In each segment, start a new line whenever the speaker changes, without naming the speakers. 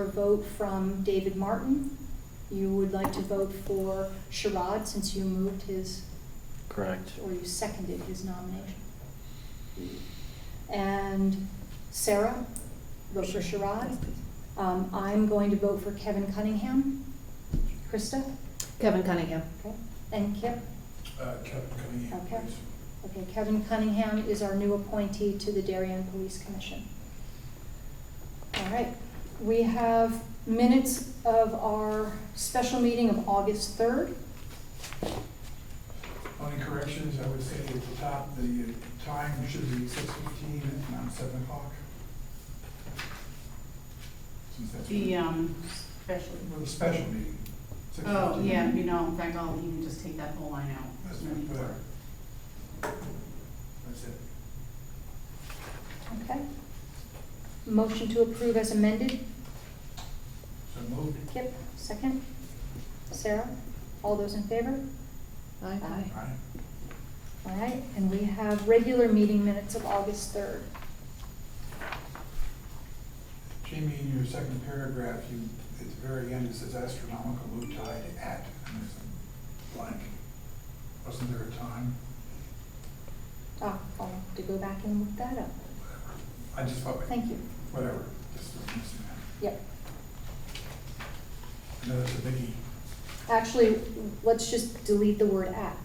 for a vote from David Martin. You would like to vote for Sherrod since you moved his,
Correct.
or you seconded his nomination. And Sarah, vote for Sherrod. Um, I'm going to vote for Kevin Cunningham. Krista?
Kevin Cunningham.
Okay. And Kip?
Uh, Kevin Cunningham,
Okay.
please.
Okay, Kevin Cunningham is our new appointee to the Darien Police Commission. All right, we have minutes of our special meeting of August 3rd.
Only corrections, I would say at the top, the uh, time should be six fifteen and not seven o'clock. Since that's
The,
for
um, special,
the special meeting. 6:15.
oh, yeah, you know, in fact, I'll even just take that whole line out.
That's not fair. That's it.
Okay. Motion to approve as amended.
So moved.
Kip, second. Sarah, all those in favor? Aye.
Aye.
All right, and we have regular meeting minutes of August 3rd.
Jamie, in your second paragraph, you, at the very end, it says astronomical low tide at, and there's a blank. Wasn't there a time?
Ah, I'll have to go back and look that up.
I just thought,
Thank you.
whatever, just was missing that.
Yep.
I know that's a biggie.
Actually, let's just delete the word "at."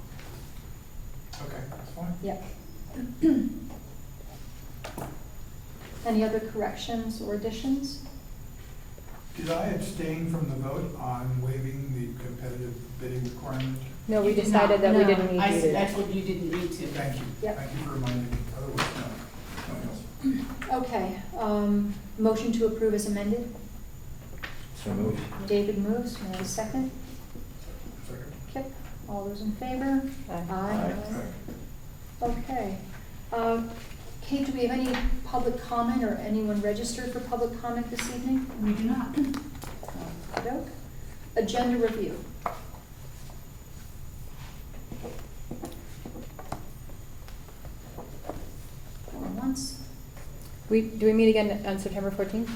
Okay, that's fine.
Yep. Any other corrections or additions?
Did I abstain from the vote on waiving the competitive bidding requirement?
No, we
You did
decided that we
not.
didn't
I,
need
s-
you
I
to.
told you you didn't need to.
Thank you.
Yep.
Thank you for reminding me. Otherwise, no, no else.
Okay, um, motion to approve is amended.
So moved.
David moves, may I have a second?
Second.
Kip, all those in favor?
Aye.
Aye.
Okay.
Okay. Um, Kate, do we have any public comment or anyone registered for public comment this evening?
We do not.
Okey-doke. Agenda review. Going once.
We, do we meet again on September fourteenth?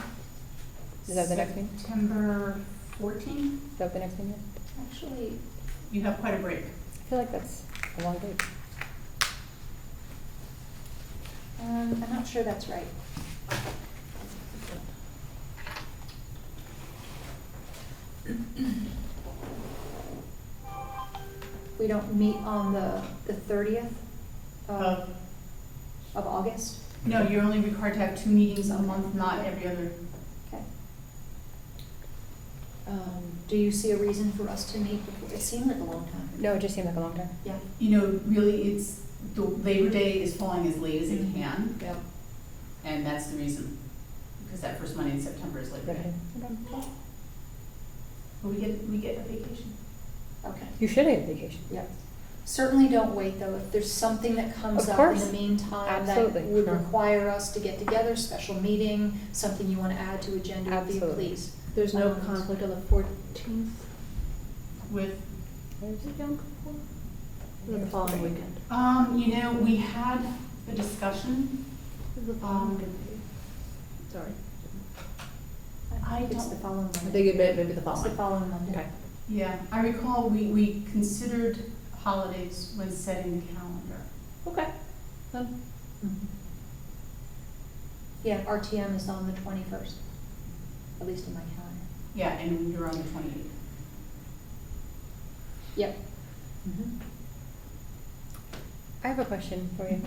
Is that the next meeting?
September fourteen,
Is that the next meeting?
Actually,
you have quite a break.
I feel like that's a long date.
um, I'm not sure that's right. We don't meet on the, the thirtieth
Uh,
of, of August?
No, you're only required to have two meetings a month, not every other.
Okay. Um, do you see a reason for us to meet before, it seemed like a long time.
No, it just seemed like a long time.
Yeah.
You know, really, it's, the Labor Day is falling as late as
Mm-hmm.
it can,
Yeah.
and that's the reason. Because that first Monday in September is Labor Day. But we get, we get a vacation.
Okay.
You should have vacation.
Yep. Certainly don't wait, though. If there's something that comes
Of
up in the
course.
meantime that
Absolutely.
would
Sure.
require us to get together, special meeting, something you want to add to agenda review,
Absolutely.
please.
There's no
Um,
conflict on the fourteenth,
With
the following weekend.
Um, you know, we had a discussion. Um,
Sorry.
I
It's
don't-
the following
I
Monday.
think it may, maybe the
It's the
following.
following Monday.
Okay.
Yeah, I recall we, we considered holidays when setting the calendar.
Okay.
Mhm. Yeah, RTM is on the twenty-first, at least in my calendar.
Yeah, and you're on the twenty-eighth.
Yep.
I have a question for you.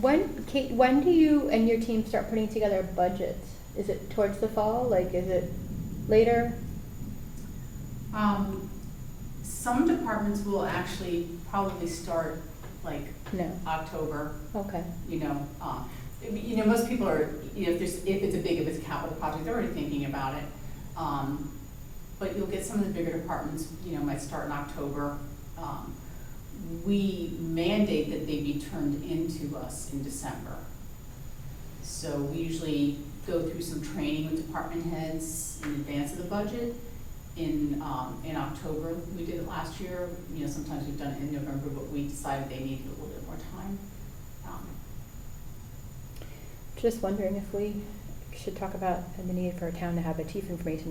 When, Kate, when do you and your team start putting together budgets? Is it towards the fall? Like, is it later?
Um, some departments will actually probably start like
No.
October,
Okay.
you know, um, you know, most people are, you know, if there's, if it's a big, if it's a capital project, they're already thinking about it. Um, but you'll get some of the bigger departments, you know, might start in October. Um, we mandate that they be turned into us in December. So we usually go through some training with department heads in advance of the budget. In, um, in October, we did it last year, you know, sometimes we've done it in November, but we decided they needed a little bit more time. Um,
Just wondering if we should talk about the need for a town to have a chief information